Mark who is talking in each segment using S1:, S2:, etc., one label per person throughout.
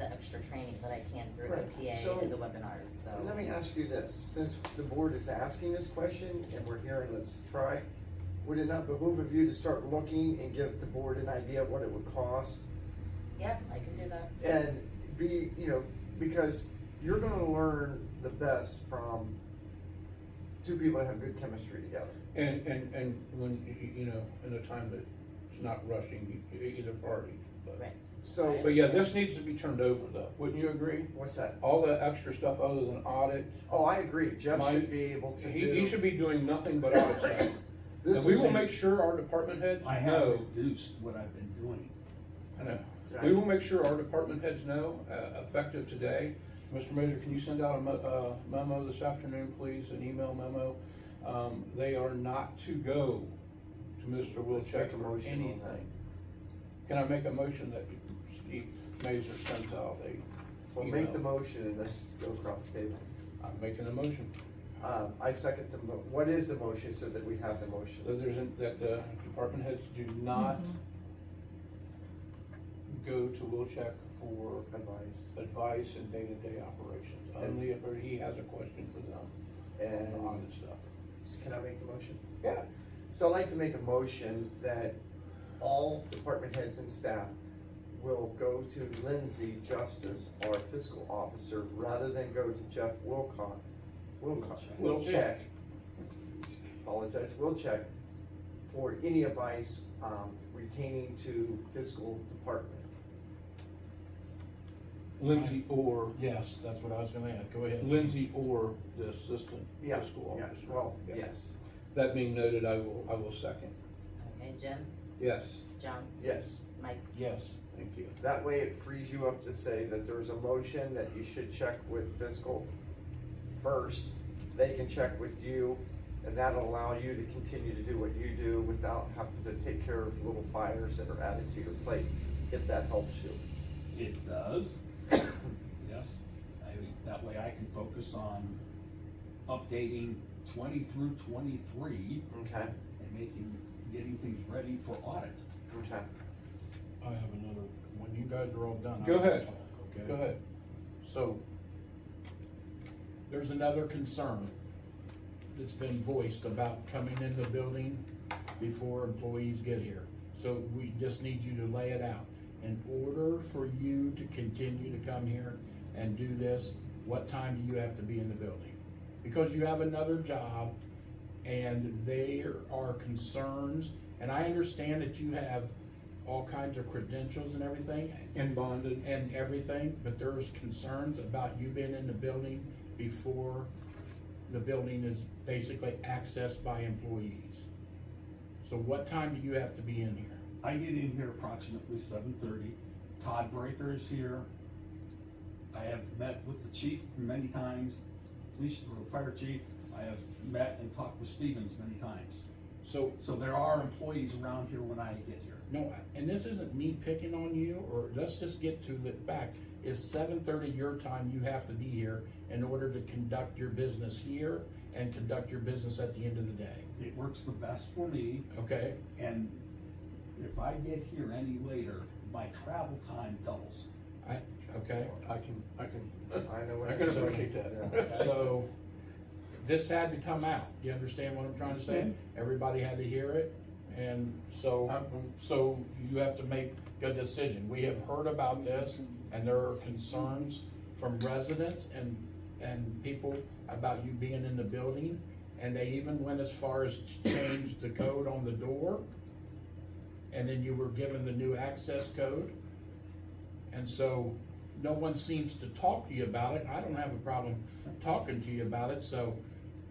S1: extra training that I can through
S2: Right.
S1: OTA
S2: So-
S1: and the webinars, so.
S2: Let me ask you this, since the board is asking this question and we're here and let's try, would it not behoove of you to start looking and give the board an idea of what it would cost?
S1: Yep, I can do that.
S2: And be, you know, because you're gonna learn the best from two people that have good chemistry together.
S3: And, and, and when, y- y- you know, in a time that it's not rushing e- e- either party, but.
S1: Right.
S2: So-
S1: Right.
S3: But yeah, this needs to be turned over though, wouldn't you agree?
S2: What's that?
S3: All the extra stuff other than audit,
S2: Oh, I agree, Jeff
S3: My-
S2: should be able to
S3: he, he should
S2: do.
S3: be doing nothing but audit stuff.
S2: This
S3: And we
S2: is
S3: will
S2: a-
S3: make sure our department heads
S4: I have
S3: know,
S4: reduced what I've been doing.
S3: I know,
S2: Right.
S3: we will make sure our department heads know, uh, effective today. Mr. Major, can you send out a mo- uh, memo this afternoon, please, an email memo? Um, they are not to go to Mr.
S2: Let's make
S3: Wilczek
S2: a
S3: for
S2: motion on that.
S3: anything. Can I make a motion that Steve Major sends out a
S2: Well, make the
S3: email?
S2: motion and let's go across the table.
S3: I'm making a motion,
S2: Um, I second the mo- what is the motion so that we have the motion?
S3: that there's, an- that the department heads do not
S2: Mm-hmm.
S3: go to Wilczek for
S2: Advice.
S3: advice and day-to-day operations, only if he has a question for them
S2: And-
S3: on the stuff.
S2: Can I make the motion?
S3: Yeah.
S2: So I'd like to make a motion that all department heads and staff will go to Lindsay Justice, our fiscal officer, rather than go to Jeff Wilcock. Wilcock,
S3: We'll
S2: Wilczek,
S3: check.
S2: apologize, Wilczek, for any advice, um, retaining to fiscal department.
S3: Lindsay or,
S4: Yes, that's what I was gonna add, go ahead.
S3: Lindsay or the assistant
S2: Yeah,
S3: fiscal
S2: yeah,
S3: officer.
S2: well,
S3: Yeah.
S2: yes,
S3: That being noted, I will, I will second.
S1: Okay, Jim,
S3: Yes,
S1: John,
S2: yes.
S1: Mike,
S4: Yes,
S3: thank you.
S2: That way it frees you up to say that there's a motion that you should check with fiscal first. They can check with you and that'll allow you to continue to do what you do without having to take care of little fires that are added to your plate, if that helps you.
S4: it does. Yes, I, that way I can focus on updating twenty through twenty-three
S2: Okay,
S4: and making, getting things ready for audit.
S2: okay.
S5: I have another, when you guys are all done. I
S3: Go
S5: wanna
S3: ahead.
S5: talk, Okay?
S3: Go ahead.
S5: So, there's another concern that's been voiced about coming in the building before employees get here. So we just need you to lay it out. In order for you to continue to come here and do this, what time do you have to be in the building? Because you have another job and there are concerns, and I understand that you have all kinds of credentials and everything,
S3: And bonded.
S5: and everything, but there's concerns about you being in the building before the building is basically accessed by employees. So what time do you have to be in here?
S4: I get in here approximately seven thirty. Todd Breaker is here. I have met with the chief many times, police or the fire chief. I have met and talked with Stevens many times.
S5: So,
S4: So there are employees around here when I get here.
S5: no, and this isn't me picking on you, or let's just get to the fact, is seven thirty your time you have to be here in order to conduct your business here and conduct your business at the end of the day,
S4: It works the best for me
S5: okay?
S4: and if I get here any later, my travel time doubles.
S5: I, okay?
S3: I can, I can,
S2: I know what
S3: I can
S2: you're saying.
S3: appreciate that.
S5: So, this had to come out, you understand what I'm trying to say? Everybody had to hear it, and so, so you have to make a decision. We have heard about this, and there are concerns from residents and, and people about you being in the building, and they even went as far as to change the code on the door, and then you were given the new access code. And so, no one seems to talk to you about it, I don't have a problem talking to you about it, so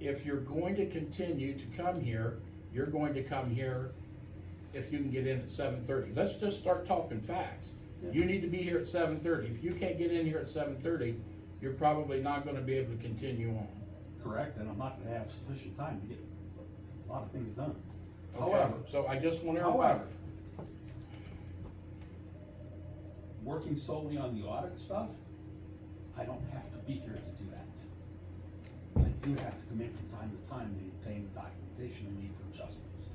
S5: if you're going to continue to come here, you're going to come here if you can get in at seven thirty, let's just start talking facts. You need to be here at seven thirty, if you can't get in here at seven thirty, you're probably not gonna be able to continue on.
S4: Correct, and I'm not gonna have sufficient time to get a lot of things done.
S5: Okay?
S4: However,
S5: So I just want everybody,
S4: however, working solely on the audit stuff, I don't have to be here to do that. I do have to come in from time to time to obtain the documentation and need for adjustments.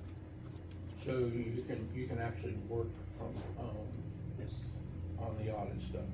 S3: So you can, you can actually work, um,
S4: Yes.
S3: on the audit stuff.